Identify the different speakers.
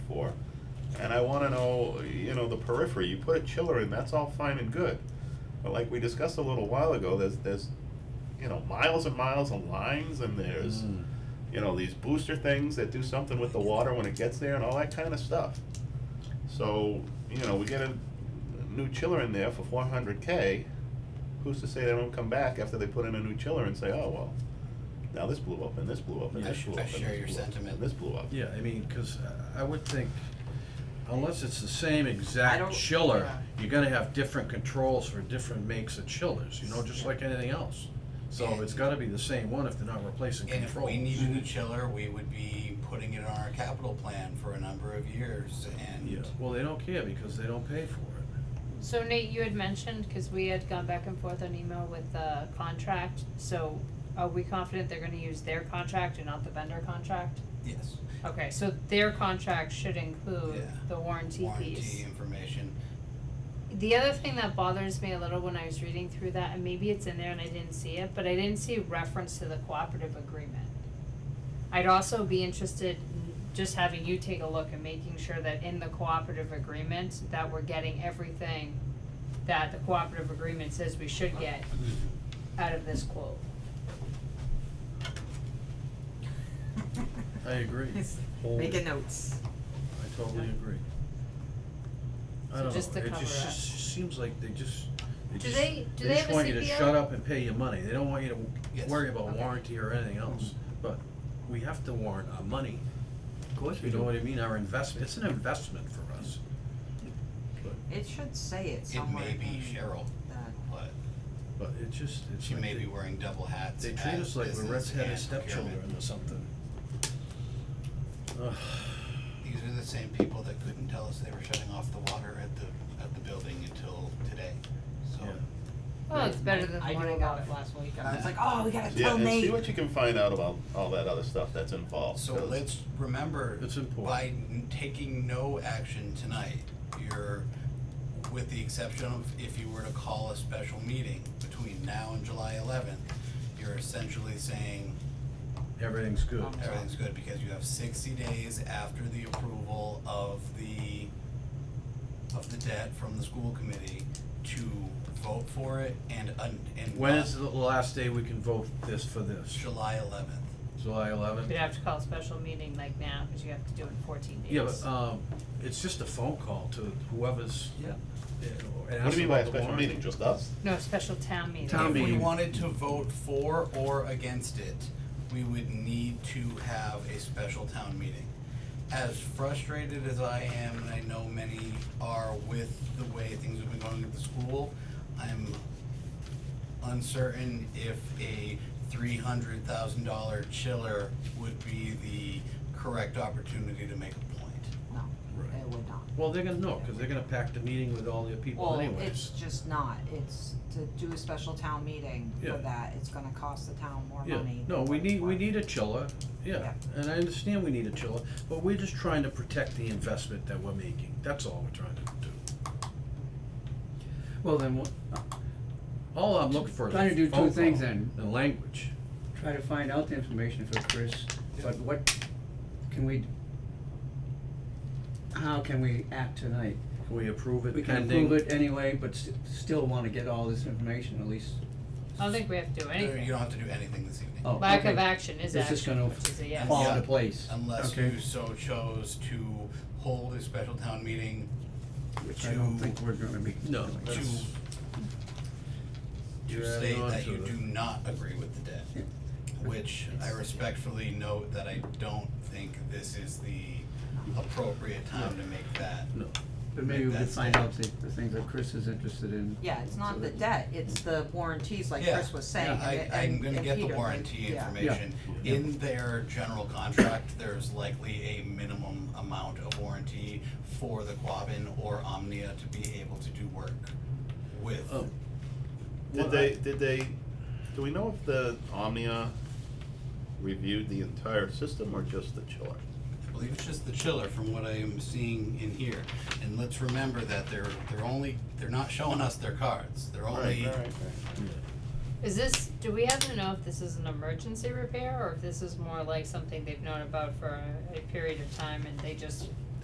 Speaker 1: and I wanna know, you know, the periphery, you put a chiller in, that's all fine and good. But like we discussed a little while ago, there's, there's, you know, miles and miles of lines and there's,
Speaker 2: Mm.
Speaker 1: you know, these booster things that do something with the water when it gets there and all that kinda stuff. So, you know, we get a new chiller in there for four hundred K, who's to say they don't come back after they put in a new chiller and say, oh, well, now this blew up and this blew up and
Speaker 2: Yeah.
Speaker 1: this blew
Speaker 3: I
Speaker 1: up and
Speaker 3: share
Speaker 1: this
Speaker 3: your
Speaker 1: blew up and
Speaker 3: sentiment.
Speaker 1: this blew up.
Speaker 2: Yeah, I mean, because I would think, unless it's the same
Speaker 4: I
Speaker 2: exact
Speaker 4: don't-
Speaker 2: chiller,
Speaker 4: yeah.
Speaker 2: you're gonna have different controls for different makes of chillers, you know, just
Speaker 4: Yeah.
Speaker 2: like anything else. So it's gotta be the same one if they're not replacing
Speaker 3: And if
Speaker 2: controls.
Speaker 3: we needed a chiller, we would be putting it on our capital plan for a number of years
Speaker 2: Yeah,
Speaker 3: and
Speaker 2: well, they don't care because they don't pay for it.
Speaker 5: So Nate, you had mentioned, cause we had gone back and forth on email with the contract, so are we confident they're gonna use their contract and not the vendor contract?
Speaker 3: yes,
Speaker 5: Okay, so their contract should include
Speaker 3: Yeah.
Speaker 5: the warranty piece.
Speaker 3: warranty information.
Speaker 5: The other thing that bothers me a little when I was reading through that, and maybe it's in there and I didn't see it, but I didn't see reference to the cooperative agreement. I'd also be interested in just having you take a look and making sure that in the cooperative agreement, that we're getting everything that the cooperative agreement says we should
Speaker 4: Oh.
Speaker 5: get out of this quote.
Speaker 2: I agree,
Speaker 4: He's
Speaker 2: Hold
Speaker 4: Making
Speaker 2: it.
Speaker 4: notes.
Speaker 2: I totally agree. I don't
Speaker 5: So
Speaker 2: know, it
Speaker 5: just
Speaker 2: just,
Speaker 5: to cover
Speaker 2: just
Speaker 5: up.
Speaker 2: seems like they just, they
Speaker 5: Do
Speaker 2: just,
Speaker 5: they-
Speaker 2: they
Speaker 5: do they
Speaker 2: just
Speaker 5: have a
Speaker 2: want you to
Speaker 5: CPO?
Speaker 2: shut up and pay your money, they don't want you to
Speaker 3: Yes. Mm-hmm.
Speaker 2: worry about
Speaker 5: Okay.
Speaker 2: warranty or anything else. But we have to warrant our money.
Speaker 3: Of course
Speaker 2: You know what I mean, our investment, it's an investment for us.
Speaker 4: It should say it
Speaker 3: It
Speaker 4: somewhere
Speaker 3: may be
Speaker 4: in
Speaker 3: Cheryl,
Speaker 4: that.
Speaker 3: but
Speaker 2: But it just, it's
Speaker 3: she
Speaker 2: like
Speaker 3: may
Speaker 2: they-
Speaker 3: be wearing double hats
Speaker 2: They treat
Speaker 3: at
Speaker 2: us like we're
Speaker 3: business
Speaker 2: redheaded
Speaker 3: and
Speaker 2: stepchildren
Speaker 3: procurement.
Speaker 2: or something. Ugh.
Speaker 3: These are the same people that couldn't tell us they were shutting off the water at the, at the building until today, so.
Speaker 2: Yeah.
Speaker 5: Well, it's better than the
Speaker 4: I
Speaker 5: one
Speaker 4: knew
Speaker 5: I
Speaker 4: about
Speaker 5: got.
Speaker 4: it last week and I was like, oh, we gotta
Speaker 1: Yeah,
Speaker 4: tell
Speaker 1: and
Speaker 4: Nate.
Speaker 1: see what you can find out about all that other stuff that's involved.
Speaker 3: So
Speaker 1: 'cause-
Speaker 3: let's remember,
Speaker 2: It's important.
Speaker 3: by n- taking no action tonight, you're, with the exception of if you were to call a special meeting between now and July eleventh, you're essentially saying
Speaker 2: Everything's good.
Speaker 4: Um,
Speaker 3: everything's good because you have sixty days after the approval of the, of the debt from the school committee to vote for it and, un- and.
Speaker 2: When is the last day we can vote this for this?
Speaker 3: July eleventh.
Speaker 2: July eleventh?
Speaker 5: You'd have to call a special meeting like now, cause you have to do it in fourteen days.
Speaker 2: Yeah, but,
Speaker 4: uh,
Speaker 2: um, it's just a phone call to whoever's,
Speaker 3: Yeah.
Speaker 2: you know, and
Speaker 1: What do
Speaker 2: ask
Speaker 1: you mean by
Speaker 2: about
Speaker 1: a
Speaker 2: the
Speaker 1: special
Speaker 2: warranty.
Speaker 1: meeting, just us?
Speaker 5: No, special town meeting.
Speaker 2: Town
Speaker 3: If we
Speaker 2: meeting.
Speaker 3: wanted to vote for or against it, we would need to have a special town meeting. As frustrated as I am, and I know many are with the way things have been going at the school, I'm uncertain if a three hundred thousand dollar chiller would be the correct opportunity to make a point.
Speaker 4: No,
Speaker 2: Right.
Speaker 4: it would not.
Speaker 2: Well, they're gonna know, cause they're gonna pack the meeting with all their people
Speaker 4: Well,
Speaker 2: anyways.
Speaker 4: it's just not, it's to do a special town meeting
Speaker 2: Yeah.
Speaker 4: for that, it's gonna cost the town more
Speaker 2: Yeah,
Speaker 4: money.
Speaker 2: no,
Speaker 4: than
Speaker 2: we
Speaker 4: what it's
Speaker 2: need, we
Speaker 4: worth.
Speaker 2: need a chiller, yeah,
Speaker 4: Yeah.
Speaker 2: and I understand we need a chiller, but we're just trying to protect the investment that we're making, that's all we're trying to do.
Speaker 6: Well, then, we'll
Speaker 2: All I'm looking for is a
Speaker 6: Trying to do two
Speaker 2: phone
Speaker 6: things
Speaker 2: call
Speaker 6: then.
Speaker 2: And language,
Speaker 6: try to find out the information for Chris, but what can we, how can we act tonight?
Speaker 2: can we approve it
Speaker 6: We can
Speaker 2: pending?
Speaker 6: approve it anyway, but s- still wanna get all this information at least.
Speaker 5: I don't think we have to do anything.
Speaker 3: You don't have to do anything this evening.
Speaker 6: Oh,
Speaker 5: Lack of
Speaker 6: okay.
Speaker 5: action is
Speaker 6: It's just
Speaker 5: action,
Speaker 6: gonna
Speaker 5: which is a yes.
Speaker 6: Fall
Speaker 3: Yeah.
Speaker 6: into place.
Speaker 3: Unless
Speaker 6: Okay.
Speaker 3: you so chose to hold a special town meeting
Speaker 6: Which I don't
Speaker 3: to-
Speaker 6: think we're gonna be.
Speaker 2: No,
Speaker 6: doing.
Speaker 3: to,
Speaker 2: That's-
Speaker 3: to
Speaker 2: You're
Speaker 3: say
Speaker 2: adding on
Speaker 3: that
Speaker 2: to
Speaker 3: you
Speaker 2: it.
Speaker 3: do not agree with the debt.
Speaker 6: Yeah.
Speaker 3: Which I respectfully note that I don't think this is the appropriate time to make that.
Speaker 2: No,
Speaker 6: But maybe we could
Speaker 3: That's-
Speaker 6: find out the, the things that Chris is interested in.
Speaker 4: Yeah, it's
Speaker 6: So
Speaker 4: not the
Speaker 6: that-
Speaker 4: debt, it's the warranties like
Speaker 3: Yeah.
Speaker 4: Chris was saying, and
Speaker 3: I,
Speaker 4: it-
Speaker 3: I'm
Speaker 4: and,
Speaker 3: gonna
Speaker 4: and
Speaker 3: get the
Speaker 4: Peter, like,
Speaker 3: warranty
Speaker 4: yeah.
Speaker 3: information.
Speaker 2: Yeah.
Speaker 3: In their general contract, there's likely a minimum amount of warranty for the Quabbin or Omnia to be able to do work with.
Speaker 6: Oh.
Speaker 2: um,
Speaker 1: Did
Speaker 2: what
Speaker 1: they,
Speaker 2: I-
Speaker 1: did they, do we know if the Omnia reviewed the entire system or just the chiller?
Speaker 3: I believe it's just the chiller from what I am seeing in here. And let's remember that they're, they're only, they're not showing us their cards, they're only,
Speaker 5: Is this, do we have to know if this is an emergency repair or if this is more like something they've known about for a period of time and they just